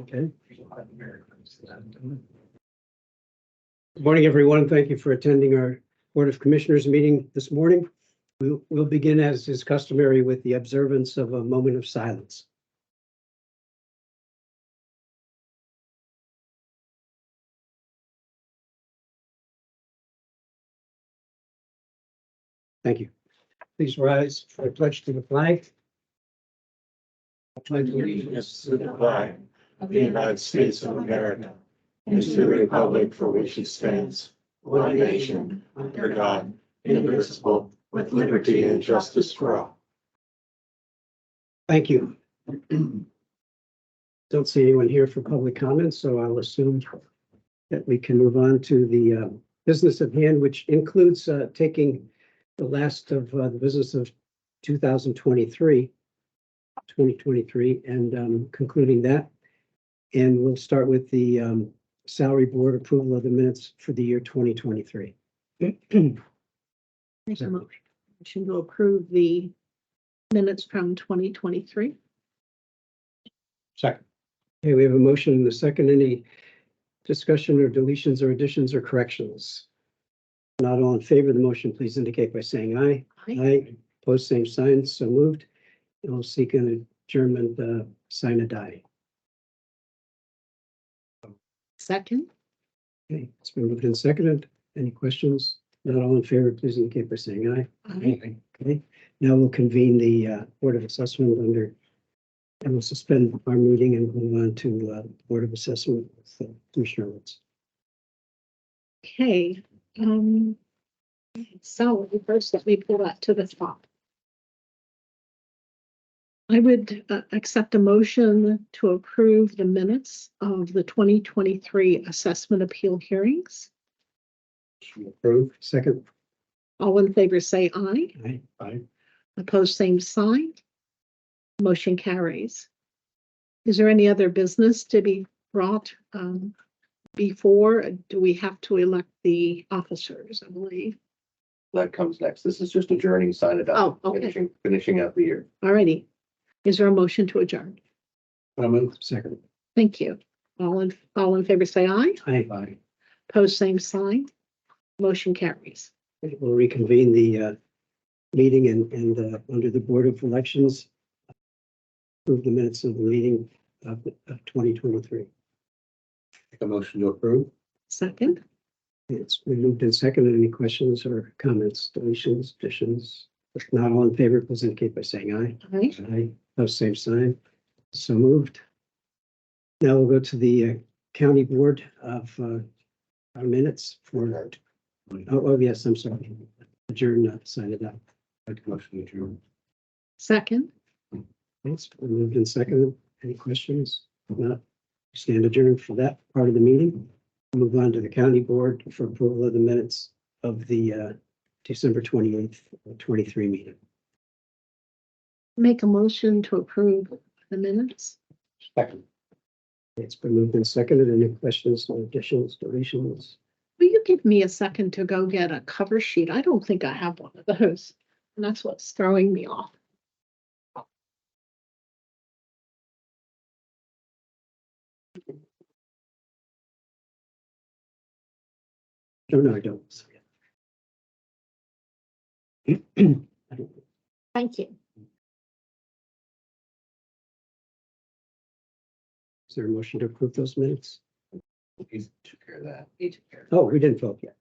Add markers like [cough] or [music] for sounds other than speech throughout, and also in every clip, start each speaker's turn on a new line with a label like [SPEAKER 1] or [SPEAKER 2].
[SPEAKER 1] Okay. Good Morning, everyone. Thank you for attending our Board of Commissioners meeting this morning. We will begin, as is customary, with the observance of a moment of silence. Thank you. Please rise for a pledge to the flag.
[SPEAKER 2] pledge allegiance to the flag of the United States of America and to the republic for which it stands, one nation, under God, indivisible, with liberty and justice for all.
[SPEAKER 1] Thank you. Don't see anyone here for public comments, so I'll assume that we can move on to the uh, business of hand, which includes uh, taking the last of uh, the business of 2023, 2023, and um, concluding that. And we'll start with the um, salary board approval of the minutes for the year 2023.
[SPEAKER 3] Make a mo- motion to approve the minutes from twenty twenty-three.
[SPEAKER 1] Second. Okay, we have a motion and a second. Any discussion or deletions or additions or corrections? Not all in favor of the motion, please indicate by saying aye. Aye. Post same sign, so moved. And we'll seek an adjournment, uh, sine die.
[SPEAKER 3] Second,
[SPEAKER 1] Okay, it's been moved and seconded. Any questions? Not all in favor, please indicate by saying aye.
[SPEAKER 3] Aye.
[SPEAKER 1] Okay, now we'll convene the uh, Board of Assessment under, and we'll suspend our meeting and move on to uh, Board of Assessment with uh, Commissioner Woods.
[SPEAKER 3] okay, um, so first let me pull that to the top. I would uh, accept a motion to approve the minutes of the twenty twenty-three assessment appeal hearings.
[SPEAKER 1] Approved. Second.
[SPEAKER 3] All in favor, say aye.
[SPEAKER 1] Aye. Aye.
[SPEAKER 3] Opposed, same sign. Motion carries. Is there any other business to be brought um, before? Do we have to elect the officers, I believe?
[SPEAKER 4] that comes next. This is just adjourning, sign it
[SPEAKER 3] Oh,
[SPEAKER 4] up.
[SPEAKER 3] okay.
[SPEAKER 4] Finishing, finishing out the year.
[SPEAKER 3] Alrighty. Is there a motion to adjourn?
[SPEAKER 1] Second.
[SPEAKER 3] Thank you. All in, all in favor, say aye.
[SPEAKER 1] Aye. Aye.
[SPEAKER 3] Opposed, same sign. Motion carries.
[SPEAKER 1] We'll reconvene the uh, meeting and, and uh, under the Board of Elections. Approve the minutes of the meeting of, of twenty twenty-three.
[SPEAKER 4] Make a motion to approve.
[SPEAKER 3] Second,
[SPEAKER 1] It's been moved and seconded. Any questions or comments, deletions, additions? If not all in favor, please indicate by saying aye.
[SPEAKER 3] aye.
[SPEAKER 1] Aye, pose same sign. So moved. Now we'll go to the uh, county board of uh, our minutes for, oh, oh, yes, I'm sorry. Adjourn, uh, sign it up.
[SPEAKER 4] Make a motion to adjourn.
[SPEAKER 3] Second,
[SPEAKER 1] Thanks. Moved and seconded. Any questions? If Not stand adjourned for that part of the meeting. Move on to the county board for approval of the minutes of the uh, December twenty-eighth, twenty-three meeting.
[SPEAKER 3] make a motion to approve the minutes.
[SPEAKER 1] Second. It's been moved and seconded. Any questions, or additions, deletions?
[SPEAKER 3] Will you give me a second to go get a cover sheet? I don't think I have one of those. And that's what's throwing me off.
[SPEAKER 1] No, no, I don't. [clears throat]
[SPEAKER 3] Thank you.
[SPEAKER 1] Is there a motion to approve those minutes?
[SPEAKER 4] He took care of that.
[SPEAKER 1] Oh, we didn't vote yet.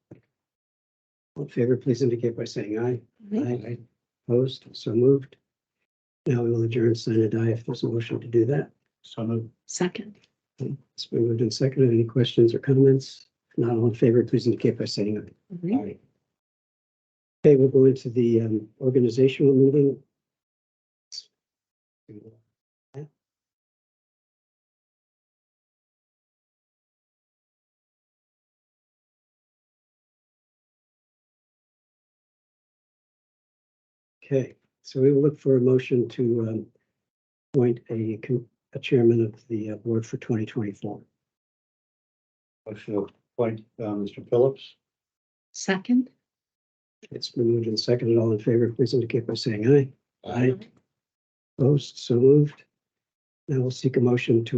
[SPEAKER 1] All in favor, please indicate by saying aye. Aye. Opposed, so moved. Now we will adjourn, sign and die if there's a motion to do that.
[SPEAKER 4] So moved.
[SPEAKER 3] Second,
[SPEAKER 1] It's been moved and seconded. Any questions or comments? If Not all in favor, please indicate by saying aye. Aye. Okay, we'll go into the um, organizational meeting. Okay, so we will look for a motion to um, appoint a co- a chairman of the uh, board for 2024.
[SPEAKER 4] Motion to appoint, uh, Mr. Phillips.
[SPEAKER 3] second.
[SPEAKER 1] It's been moved and seconded. All in favor, please indicate by saying aye. Aye. Opposed, so moved. Now we'll seek a motion to